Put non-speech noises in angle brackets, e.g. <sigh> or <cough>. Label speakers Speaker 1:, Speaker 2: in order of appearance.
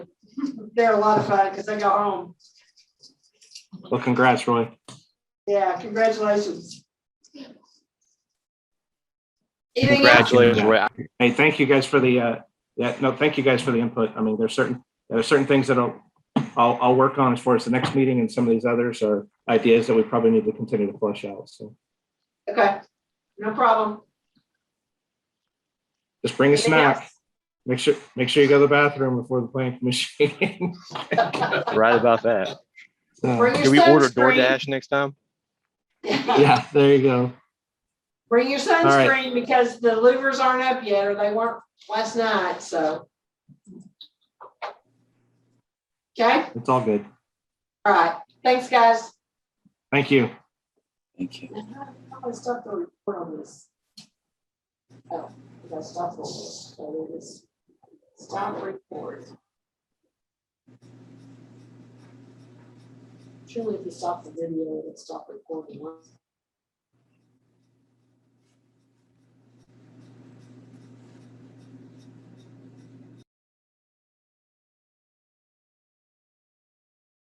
Speaker 1: they're a lot of fun because they go home.
Speaker 2: Well, congrats, Roy.
Speaker 1: Yeah, congratulations. Anything else?
Speaker 3: Congratulations, Roy.
Speaker 2: Hey, thank you guys for the, uh, yeah, no, thank you guys for the input. I mean, there's certain, there are certain things that I'll, I'll, I'll work on as far as the next meeting and some of these others are ideas that we probably need to continue to flush out. So
Speaker 1: Okay, no problem.
Speaker 2: just bring a
Speaker 1: Anything
Speaker 2: snack. Make sure, make sure you go to the bathroom before the planning <laughs> commission.
Speaker 1: else?
Speaker 3: Right about that.
Speaker 2: So,
Speaker 1: Bring your
Speaker 3: Can we order
Speaker 1: sunscreen.
Speaker 3: DoorDash next time?
Speaker 2: Yeah, there you go.
Speaker 1: <laughs> Bring your
Speaker 2: right.
Speaker 1: sunscreen because the louvers aren't up yet, or they weren't last night, so. Okay,
Speaker 2: It's all good.
Speaker 1: all right, thanks, guys.
Speaker 2: Thank you.
Speaker 4: Thank you.
Speaker 1: I stopped the report on this. Oh, I got stuff on this, so it is, stop report. Surely if you stop the video, it'll stop recording. huh?